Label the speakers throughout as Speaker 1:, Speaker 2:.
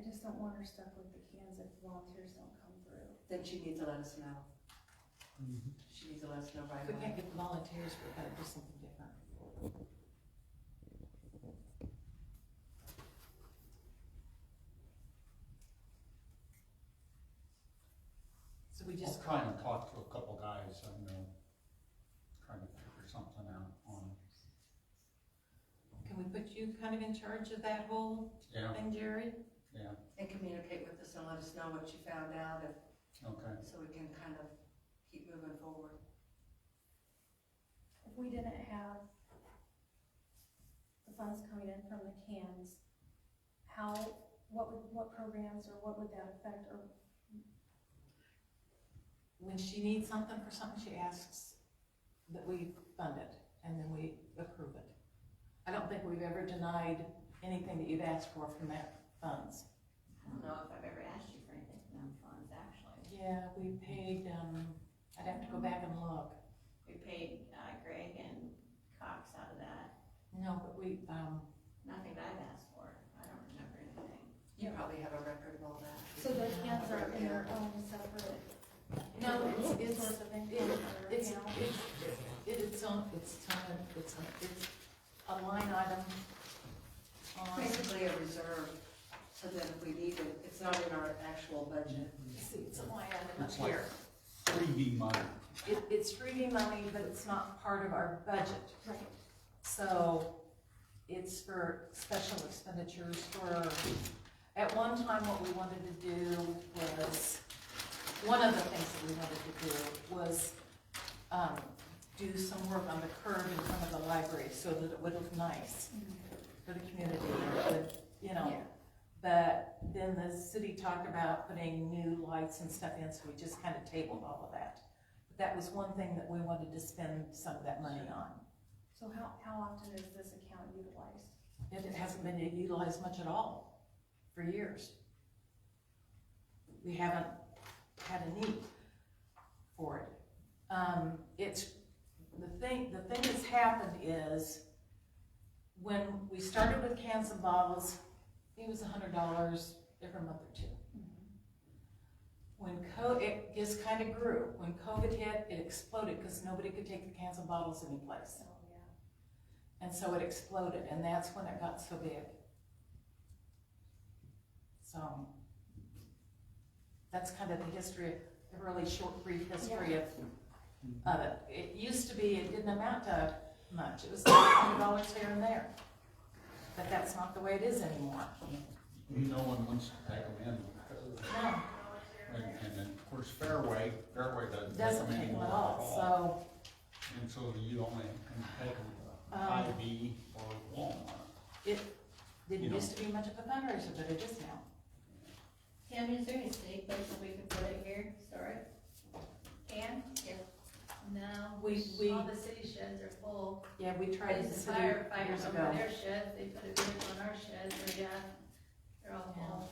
Speaker 1: I just don't want her stuck with the cans if volunteers don't come through.
Speaker 2: Then she needs to let us know. She needs to let us know right
Speaker 3: If we can't
Speaker 2: away.
Speaker 3: get volunteers, we gotta do something different. So we
Speaker 4: I'll
Speaker 3: just,
Speaker 4: try and talk to a couple guys, I'm gonna try to figure something out on,
Speaker 3: can we put you kind of in charge of that whole
Speaker 4: yeah,
Speaker 3: thing, Jerry?
Speaker 4: yeah,
Speaker 2: And communicate with us and let us know what you found out, if-
Speaker 4: okay.
Speaker 2: so we can kind of keep moving forward.
Speaker 1: If we didn't have the funds coming in from the cans, how, what would, what programs or what would that affect or
Speaker 3: When she needs something for something, she asks that we fund it, and then we approve it. I don't think we've ever denied anything that you've asked for from that funds.
Speaker 5: I don't know if I've ever asked you for anything from funds, actually.
Speaker 3: Yeah, we paid, um, I'd have to go back and look.
Speaker 5: We paid uh, Greg and Cox out of that,
Speaker 3: No, but we, um,
Speaker 5: nothing that I've asked for, I don't remember anything.
Speaker 2: You probably have a record of all that.
Speaker 1: So their cans are in their own separate.
Speaker 3: No, it's- it's-
Speaker 1: Source of income or
Speaker 3: it's,
Speaker 1: account?
Speaker 3: it's, it- it's on, it's on, it's on, it's a line item on,
Speaker 2: Basically a reserve, so that if we need it, it's not in our actual budget.
Speaker 3: see, it's a line item up
Speaker 4: It's like-
Speaker 3: here.
Speaker 4: Three D money,
Speaker 3: It, it's freebie money, but it's not part of our budget.
Speaker 1: Right.
Speaker 3: So it's for special expenditures for, at one time, what we wanted to do was, one of the things that we wanted to do was, um, do some work on the curb in front of the library so that it would look nice for the community, and it would, you know. But then the city talked about putting new lights and stuff in, so we just kind of tabled all of that. But that was one thing that we wanted to spend some of that money on.
Speaker 1: So how, how often is this account utilized?
Speaker 3: It hasn't been utilized much at all for years. We haven't had a need for it. Um, it's, the thing, the thing that's happened is when we started with cans and bottles, it was a hundred dollars every month or two. Mm-hmm. When co, it just kind of grew. When COVID hit, it exploded because nobody could take the cans and bottles anyplace.
Speaker 1: So, yeah.
Speaker 3: And so it exploded, and that's when it got so big. So, that's kind of the history, a really short, brief history of, of it. It used to be, it didn't amount to much, it was like hundred dollars here and there. But that's not the way it is anymore.
Speaker 4: no one wants to take them in, because-
Speaker 3: No,
Speaker 4: and, and then, of course, Fairway, Fairway doesn't
Speaker 3: it
Speaker 4: take
Speaker 3: doesn't
Speaker 4: them
Speaker 3: take them
Speaker 4: anymore
Speaker 3: at
Speaker 4: at all.
Speaker 3: all,
Speaker 4: And so you only can take them to
Speaker 3: Um,
Speaker 4: Hy-Vee or Walmart.
Speaker 3: so it didn't
Speaker 4: You know.
Speaker 3: used to be much of a fundraiser, but it is now.
Speaker 5: Tim, is there any city place that we could put it here, store it? Can? Yes.
Speaker 6: No,
Speaker 3: We- we-
Speaker 6: all the city sheds are full.
Speaker 3: Yeah, we tried
Speaker 6: There's
Speaker 3: this
Speaker 6: a
Speaker 3: city years
Speaker 6: firefighter
Speaker 3: ago.
Speaker 6: over their sheds, they put a vehicle on our sheds, they're, yeah, they're all full.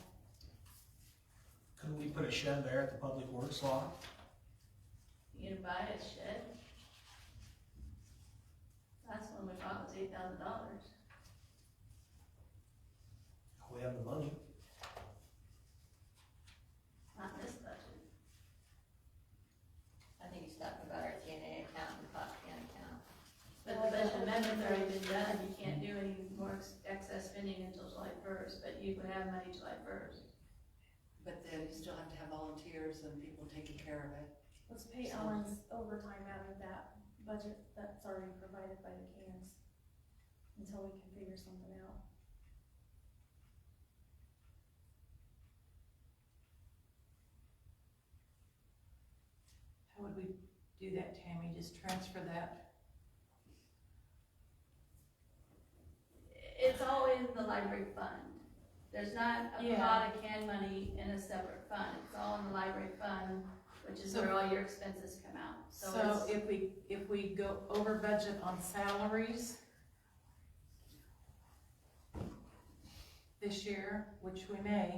Speaker 7: Couldn't we put a shed there at the public works lot?
Speaker 6: You can buy a shed. Last one we bought was eight thousand dollars.
Speaker 7: We have the money.
Speaker 6: Not this budget.
Speaker 5: I think he's talking about our TNA account and pot can account.
Speaker 6: But the budget amendment's already been done, you can't do any more ex- excess spending until July first, but you would have money July first.
Speaker 2: But then you still have to have volunteers and people taking care of it.
Speaker 1: Let's pay Ellen's overtime out of that budget that's already provided by the cans until we can figure something out.
Speaker 3: How would we do that, Tammy? Just transfer that?
Speaker 6: It's all in the library fund. There's not a
Speaker 3: Yeah.
Speaker 6: pot of can money in a separate fund. It's all in the library fund, which is where all your expenses come out. So
Speaker 3: So
Speaker 6: it's,
Speaker 3: if we, if we go over budget on salaries this year, which we may,